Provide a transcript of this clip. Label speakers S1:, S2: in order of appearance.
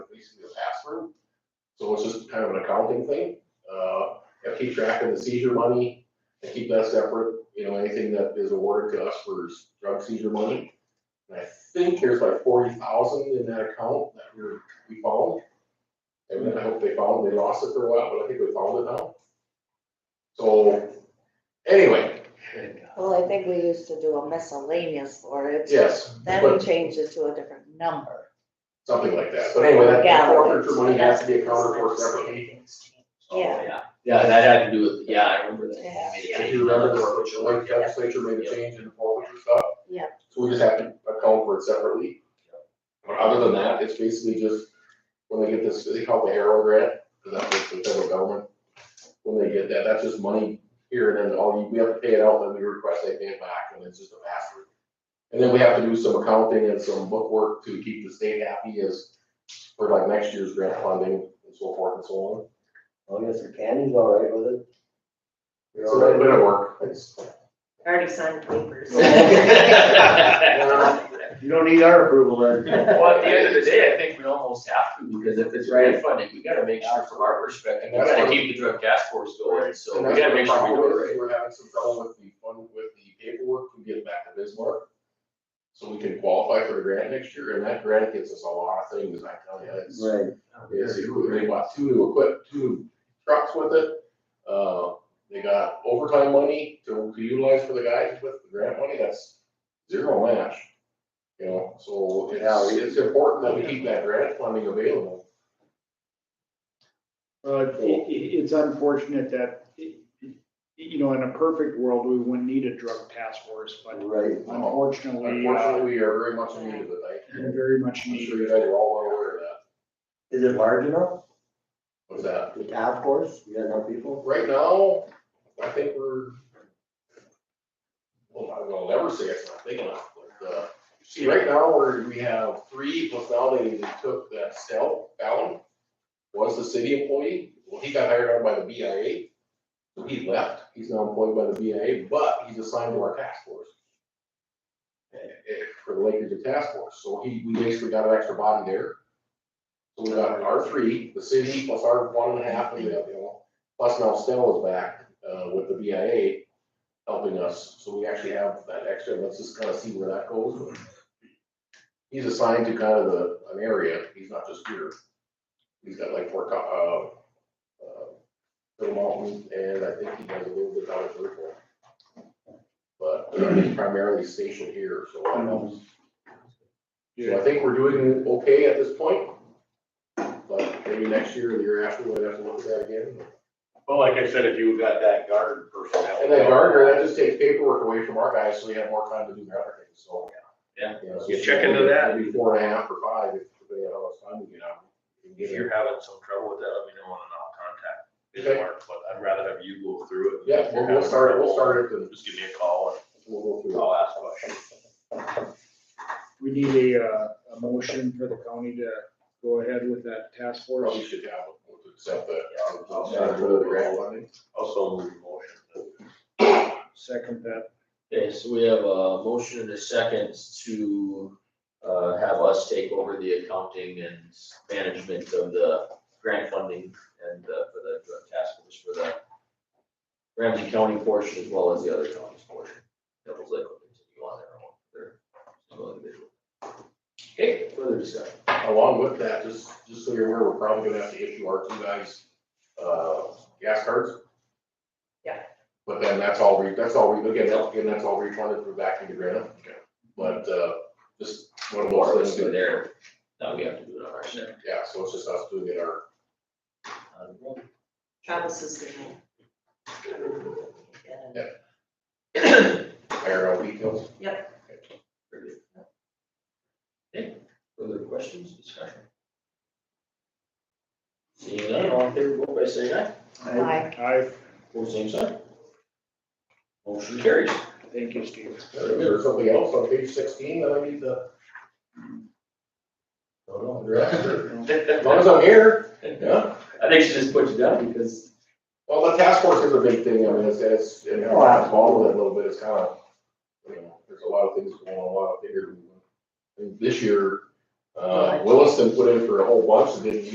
S1: So it's just kind of an accounting thing. Uh, I keep track of the seizure money, I keep that separate, you know, anything that is awarded to us for drug seizure money. And I think there's like forty thousand in that account that we, we found. And then I hope they found, they lost it for a while, but I think we found it now. So, anyway,
S2: Well, I think we used to do a miscellaneous for it.
S1: yes,
S2: Then we changed it to a different number.
S1: something like that. But anyway, that- that
S2: Yeah.
S1: forfeiture money has to be accounted for separately.
S3: Oh,
S2: Yeah.
S3: Yeah, that had to do with, yeah, I remember that.
S2: Yeah.
S1: If you remember, the like legislature made a change in the forfeiture stuff.
S2: Yeah.
S1: So we just have to account for it separately. But other than that, it's basically just, when they get this, they call it the Arrow grant, because that's what the federal government. When they get that, that's just money here, and then all, you- we have to pay it out, then we request they pay it back, and it's just a pass through. And then we have to do some accounting and some bookwork to keep the state happy as, for like next year's grant funding and so forth and so on.
S4: long as the candy's all right with it. You're
S1: So
S4: all
S1: that's a
S4: right with
S1: bit of work, it's.
S5: Already signed papers.
S4: it? You don't need our approval then.
S3: Well, at the end of the day, I think we almost have to, because if it's grant funding, we gotta make sure from our perspective, we gotta keep the drug task force going, so
S1: And
S3: we
S1: that's
S3: gotta
S1: what
S3: make
S1: the
S3: sure we
S1: problem
S3: do
S1: is,
S3: it right.
S1: We're having some trouble with the fund, with the paperwork to get it back to Bismarck. So we can qualify for the grant next year, and that grant gets us a lot of things, I tell you, it's,
S4: Right,
S1: it's, they bought two new equip, two new trucks with it. Uh, they got overtime money to to utilize for the guys with the grant money, that's zero match. You know, so it's, it's important that we keep that grant funding available.
S6: Uh, it, it- it's unfortunate that, it- it- you know, in a perfect world, we wouldn't need a drug task force,
S7: Oh.
S6: but
S4: right.
S6: unfortunately, uh,
S1: Unfortunately, we are very much in need of it, I,
S6: we very much
S1: I'm
S6: needed.
S1: sure you guys are all well aware of that,
S4: Is it large enough?
S1: what's that?
S4: The task force, you got enough people?
S1: Right now, I think we're, well, I will never say it's not big enough, but, uh, see, right now, we're, we have three, plus now they they took that Stell Fallon, was the city employee, well, he got hired out by the BIA, so he left, he's now employed by the BIA, but he's assigned to our task force. Eh, eh, For the Lakers and task force, so he, we basically got an extra body there. So we got our three, the city plus our one and a half, and we have, you know, Plus now Stella is back, uh, with the BIA helping us, so we actually have that extra, let's just kind of see where that goes. He's assigned to kind of the, an area, he's not just here. He's got like four, co- uh, uh, Bill Mountain, and I think he does a little bit out of Liverpool. But uh, he's primarily stationed here, so I know. So I think we're doing okay at this point. But maybe next year or the year after, we'll have to look at that again.
S7: Well, like I said, if you've got that guard personnel.
S1: And then Gardner, that just takes paperwork away from our guys, so they have more time to do their other things, so.
S3: Yeah.
S1: You know, so
S7: You check into that?
S1: Maybe four and a half or five, if they have all this time to get out. and
S7: If
S1: get
S7: you're
S1: in.
S7: having some trouble with that, let me know and I'll contact
S1: Okay.
S7: Bismarck, but I'd rather have you go through it.
S1: Yeah, we'll, we'll start it, we'll start it, and
S7: Just give me a call
S1: we'll go
S7: and
S1: through.
S7: I'll ask questions.
S6: We need a, uh, a motion for the county to go ahead with that task force.
S1: Probably should have, we'll accept that.
S7: Yeah, I'll
S1: Start
S7: start
S1: with the grant
S7: it.
S1: funding.
S7: Also move the motion.
S6: Second that,
S3: Okay, so we have a motion and a second to, uh, have us take over the accounting and management of the grant funding and, uh, for the drug task force for the Ramsey County portion as well as the other counties portion. Devil's Lake will continue on their own, their, own individual. Okay, further discussion.
S1: Along with that, just, just so you're aware, we're probably gonna have to issue our two guys, uh, gas cards.
S5: Yeah.
S1: But then that's all, re- that's all, re- again, that- again, that's all refunded through back into grant. But, uh, just one of
S3: Or
S1: those
S3: let's do
S1: things,
S3: there, now we have to do it on our side.
S1: yeah, so it's just us doing it our
S5: Travis is gonna. Get it.
S1: higher out details.
S3: Very good. Okay, further questions, discussion? Seeing none, all in favor, vote by saying aye,
S4: I-
S2: Like,
S6: I,
S3: or same sign. Motion carries.
S6: thank you, Steve.
S1: There's something else on page sixteen that I need to. I don't know, address, or- As long as I'm here, yeah.
S3: I think she just put you down because.
S1: Well, the task force is a big thing. I mean, it's, it's, and
S4: Oh,
S1: I'm involved
S4: absolutely.
S1: with it a little bit. It's kind of, you know, there's a lot of things going on, a lot of figures. And This year, uh, Williston put in for a whole bunch and didn't